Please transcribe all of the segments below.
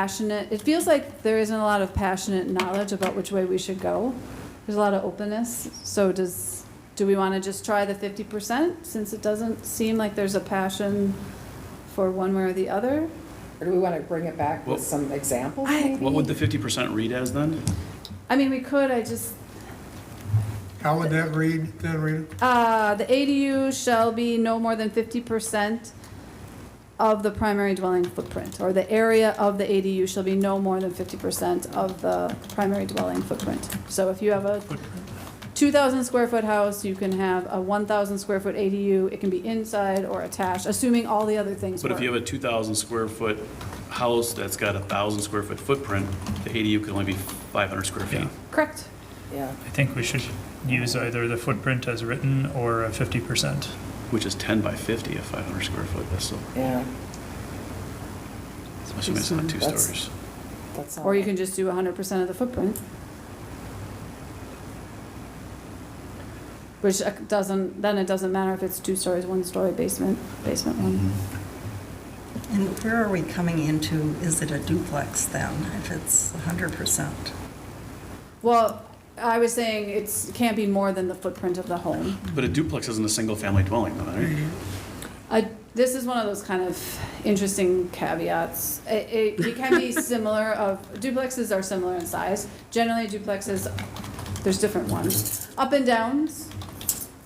passionate, it feels like there isn't a lot of passionate knowledge about which way we should go. There's a lot of openness, so does, do we want to just try the fifty percent, since it doesn't seem like there's a passion for one way or the other? Or do we want to bring it back with Well- some examples? I- What would the fifty percent read as then? I mean, we could, I just, How would that read, then, Rita? Uh, the ADU shall be no more than fifty percent of the primary dwelling footprint, or the area of the ADU shall be no more than fifty percent of the primary dwelling footprint. So if you have a two thousand square foot house, you can have a one thousand square foot ADU, it can be inside or attached, assuming all the other things But if you work. have a two thousand square foot house that's got a thousand square foot footprint, the ADU can only be five hundred square feet. Correct? Yeah, I think we should use either the footprint as written or a fifty percent. Which is 10 by 50 at 500 square foot, that's still, yeah, I'm assuming it's not two That's- stories. that's. Or you can just do hundred percent of the footprint. Which uh, doesn't, then it doesn't matter if it's two stories, one story, basement, basement one. And where are we coming into, is it a duplex then, if it's 100%? Well, I was saying it's, can't be more than the footprint of the home. But a duplex isn't a single-family dwelling, though, right? Mm-hmm. I, this is one of those kind of interesting caveats. It, it, it can be similar of, duplexes are similar in size. Generally duplexes, there's different ones. Up and downs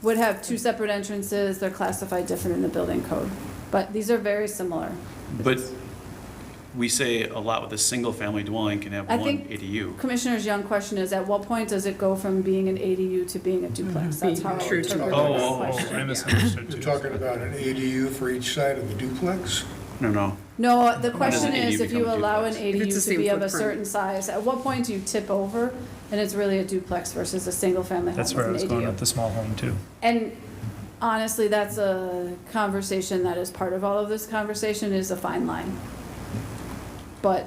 would have two separate entrances, they're classified different in the building code. But these are very similar. But we say a lot with a single-family dwelling can have I one think- ADU. Commissioner's Young question is, at what point does it go from being an ADU to being a duplex? That's how I Mm-hmm. True to- interpret the Oh, oh, oh, question. I misunderstood You're too. talking about an ADU for each side of the duplex? No, no, No, uh, the does question an ADU is, if you become a allow an duplex? If ADU it's the to be same of a footprint. certain size, at what point do you tip over? And it's really a duplex versus a single-family home That's with where I an was going with ADU. the small home too. And honestly, that's a conversation that is part of all of this conversation, is a fine line. But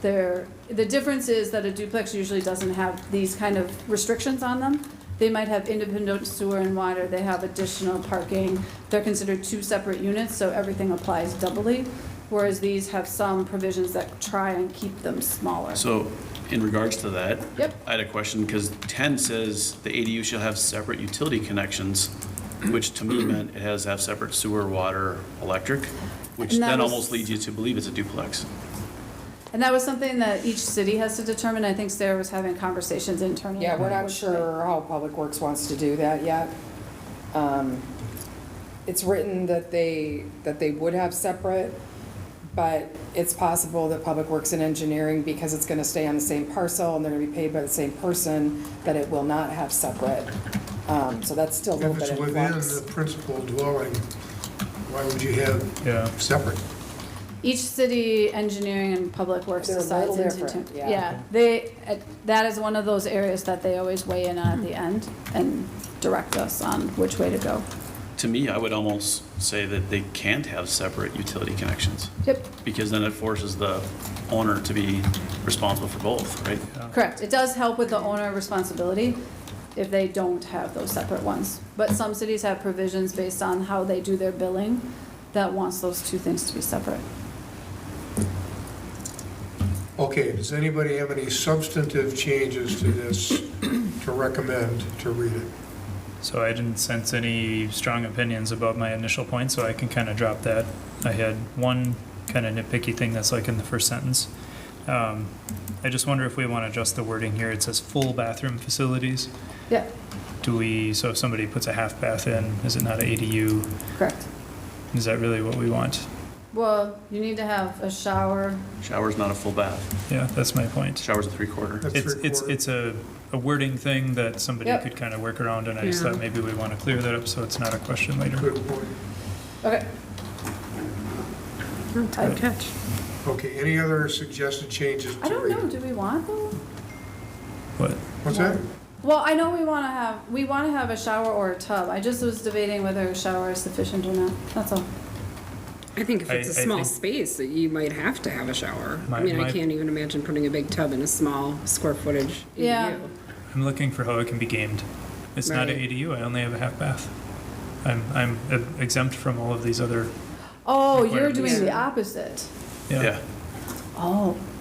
there, the difference is that a duplex usually doesn't have these kind of restrictions on them. They might have independent sewer and water, they have additional parking, they're considered two separate units, so everything applies doubly. Whereas these have some provisions that try and keep them smaller. So in regards to that. Yep. I had a question, because 10 says the ADU shall have separate utility connections, which to me meant it has to have separate sewer, water, electric, which And that then was- almost leads you to believe it's a duplex. And that was something that each city has to determine, I think Sarah was having conversations internally. Yeah, we're about not which sure how Public Works wants to do that yet. Um, It's written that they, that they would have separate, but it's possible that Public Works and Engineering, because it's going to stay on the same parcel and they're going to be paid by the same person, that it will not have separate. Um, So that's still a little If bit it's in within the flux. principal dwelling, why would you have Yeah. separate? Each city engineering and public works They're a decides little into. different, yeah. they, uh, that is one of those areas that they always weigh in on at the end and direct us on which way to go. To me, I would almost say that they can't have separate utility connections, Yep, because then it forces the owner to be responsible for both, right? correct. It does help with the owner responsibility if they don't have those separate ones. But some cities have provisions based on how they do their billing that wants those two things to be separate. Okay, does anybody have any substantive changes to this to recommend to read it? So I didn't sense any strong opinions about my initial point, so I can kind of drop that. I had one kind of nitpicky thing that's like in the first sentence. Um, I just wonder if we want to adjust the wording here. It says full bathroom facilities. Yeah, Do we, so if somebody puts a half bath in, is it not an ADU? correct. Is that really what we want? Well, you need to have a shower, Shower's not a full bath. Yeah, that's my point. Shower's a three-quarter. That's It's, three it's, quarter. it's a, a wording thing that somebody Yep. could kind of work around, and I just Yeah. thought maybe we want to clear that up so it's not a question later. Good point. okay. I- catch. Okay, any other suggested changes I to don't read? know, do we want them? But What's that? Well, I know we want to have, we want to have a shower or a tub. I just was debating whether a shower is sufficient or not, that's all. I think if I- it's a I small think- space, that you might have to have a shower. My- I mean, my- I can't even imagine putting a big tub in a small square footage ADU. Yeah. I'm looking for how it can be gamed. It's not an Right. ADU, I only have a half bath. I'm, I'm exempt from all of these other, Oh, Requirements. you're doing the Yeah. opposite. yeah. Yeah, Oh.